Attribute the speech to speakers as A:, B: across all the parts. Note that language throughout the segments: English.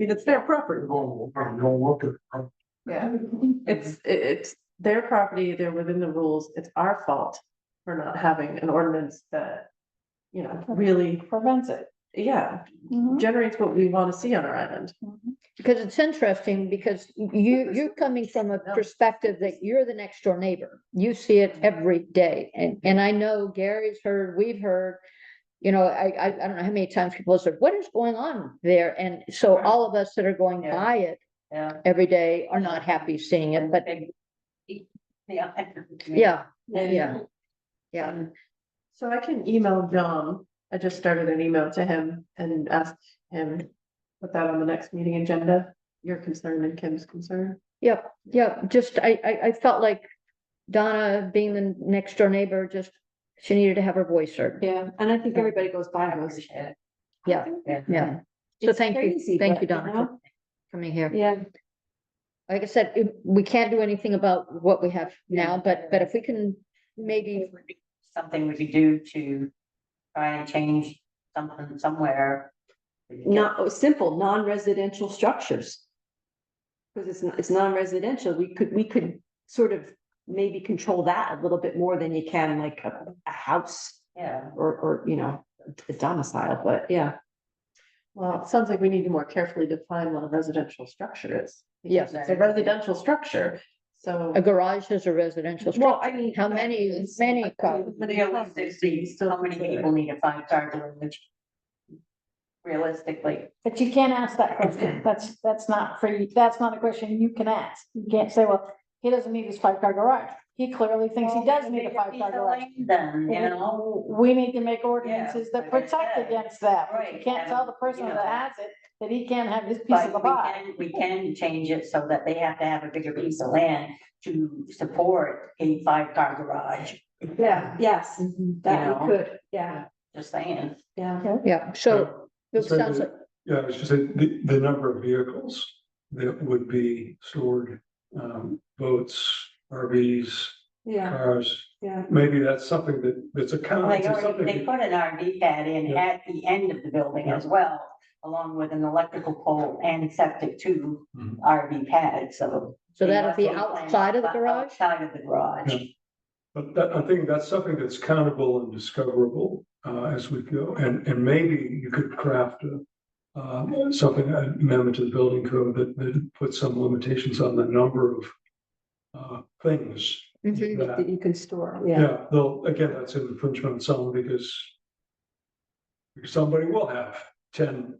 A: mean, it's their property.
B: Don't, don't look at.
A: Yeah, it's, it- it's their property, they're within the rules, it's our fault for not having an ordinance that. You know, really,
C: prevents it. Mm-hmm.
A: yeah, generates what we want to see on our island.
C: Because it's interesting, because you, you're coming from a perspective that you're the next door neighbor. You see it every day. And, and I know Gary's heard, we've heard, you know, I, I, I don't know how many times people have said, what is going on there? And so
A: Right.
C: all of us that are going
A: Yeah.
C: by it
A: Yeah.
C: every day are not happy seeing it, but
D: Yeah.
C: yeah,
A: And-
C: yeah. yeah.
A: So I can email John. I just started an email to him and asked him, put that on the next meeting agenda, your concern and Kim's concern.
C: Yep, yep, just, I, I, I felt like Donna being the next door neighbor, just, she needed to have her voice heard.
E: Yeah, and I think everybody goes by those.
C: Yeah, yeah. So
E: It's
C: thank you,
E: crazy,
C: thank you,
E: but, you
C: Donna, for
E: know?
C: coming here.
E: Yeah,
C: Like I said, it- we can't do anything about what we have now, but, but if we can maybe,
D: Something we could do to try and change something somewhere.
E: not, oh, simple, non-residential structures. Because it's, not- it's non-residential, we could, we could sort of maybe control that a little bit more than you can like a, a house
D: Yeah.
E: or, or, you know, a domicile, but yeah.
A: Well, it sounds like we need to more carefully define what a residential structure is.
C: Yes.
A: It's a residential structure, so.
C: a garage is a residential
E: Well,
C: structure.
E: I mean.
C: How many, many, co-
D: Realistically, how many people need a five star garage? Realistically,
F: But you can't ask that question. That's, that's not for you. That's not a question you can ask. You can't say, well, he doesn't need his five car garage. He clearly thinks he does need a five car garage.
D: Then, you know,
F: W- We need to make ordinances that
D: like I
F: protect
D: said.
F: against that. You
D: Right,
F: can't tell
D: and,
F: the person
D: you
F: that
D: know.
F: has it that he can't have his piece of the
D: but we
F: pie.
D: can, we can change it so that they have to have a bigger piece of land to support a five car garage,
E: Yeah, yes, that
D: Yeah.
E: we could, yeah,
D: just saying.
E: yeah.
C: yeah, so it
B: Uh, So
C: sounds
B: the-
C: like,
B: Yeah, it's just that the, the number of vehicles that would be stored, um, boats, RVs,
E: Yeah,
B: cars.
E: yeah.
B: Maybe that's something that, that's a count,
D: They
B: it's
D: already, they
B: something.
D: put an RV pad in
B: Yeah.
D: at the end of the building as well, along with an electrical pole and septic two
B: Mhm.
D: RV pad, so.
C: so
D: they
C: that'll be
D: also plan
C: outside of the garage?
D: Outside of the garage,
B: But that, I think that's something that's countable and discoverable, uh, as we go, and, and maybe you could craft a. Um, something, an amendment to the building code that, that puts some limitations on the number of. Uh, things
C: Mhm.
B: that
E: Mm-hmm, That you can store, yeah.
B: Yeah, though, again, that's an infringement on someone because. because Somebody will have ten.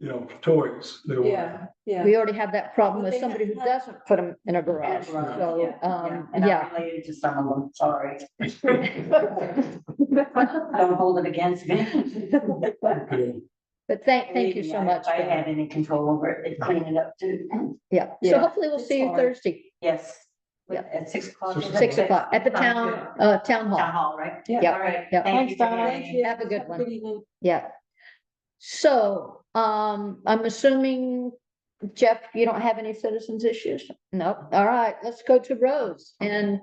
B: You know, toys. They will.
E: Yeah, yeah.
C: We already have that problem
D: Well,
C: with
D: they
C: somebody who
D: have-
C: doesn't put them in a garage,
D: garage,
C: so,
D: yeah,
C: um,
D: and
C: yeah.
D: I'm related to some of them, sorry. Don't hold it against me.
B: Okay.
C: But thank, thank you
D: Believe me,
C: so
D: I-
C: much.
D: If I
C: Donna.
D: had any control over it, they'd clean it up too,
C: Yeah, so
E: Yeah.
C: hopefully we'll
D: It's
C: see you
D: hard.
C: Thursday,
D: yes.
C: Yeah.
D: At six o'clock.
B: Six
D: is it?
C: six o'clock, at the
D: Sounds
C: town,
D: good.
C: uh, town hall.
D: Town hall, right?
C: Yeah.
D: All right.
C: Yeah.
D: Thank you
F: Thanks,
D: for
F: Donna.
D: having me.
C: Have a good one. Yeah. So, um, I'm assuming, Jeff, you don't have any citizens issues? No, all right, let's go to roads and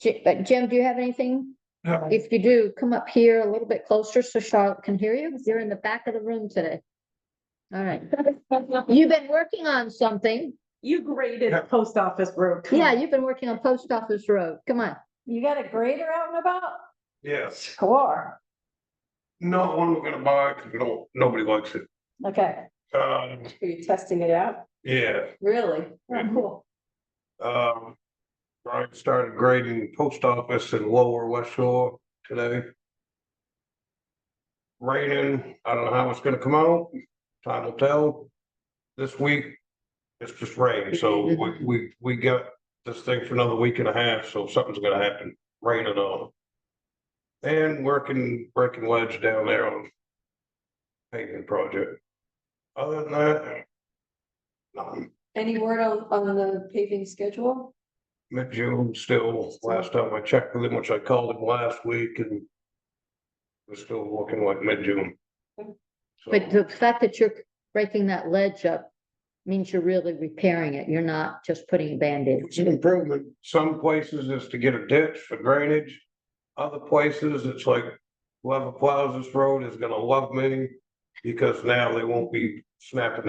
C: Ji- uh, Jim, do you have anything?
B: No.
C: If you do, come up here a little bit closer so Charlotte can hear you. You're in the back of the room today. All right. You've been working on something.
A: You graded post office road. Come
C: Yeah,
A: on.
C: you've been working on Post Office Road. Come on.
F: You got a grader out and about?
G: Yes,
F: Score.
G: not one we're gonna buy, cause we don't, nobody likes it.
F: Okay,
G: Um,
E: Are you testing it out?
G: yeah,
E: Really?
G: Yeah.
E: Cool.
G: um, Brian started grading post office in Lower West Shore today. Raining, I don't know how it's gonna come out, time will tell. This week, it's just rain, so
E: Mm-hmm,
G: we, we, we got this thing for another week and a half, so something's gonna happen, rain it all. And working, breaking ledge down there on paving project. Other than that, nothing.
E: Any word on, on the paving schedule?
G: mid-June still, last time I checked with him, which I called him last week and we're still looking like mid-June. So,
C: But the fact that you're breaking that ledge up means you're really repairing it. You're not just putting a Band-Aid.
G: It's an improvement. Some places is to get a ditch for drainage. Other places, it's like whoever plows this road is gonna love me because now they won't be snap the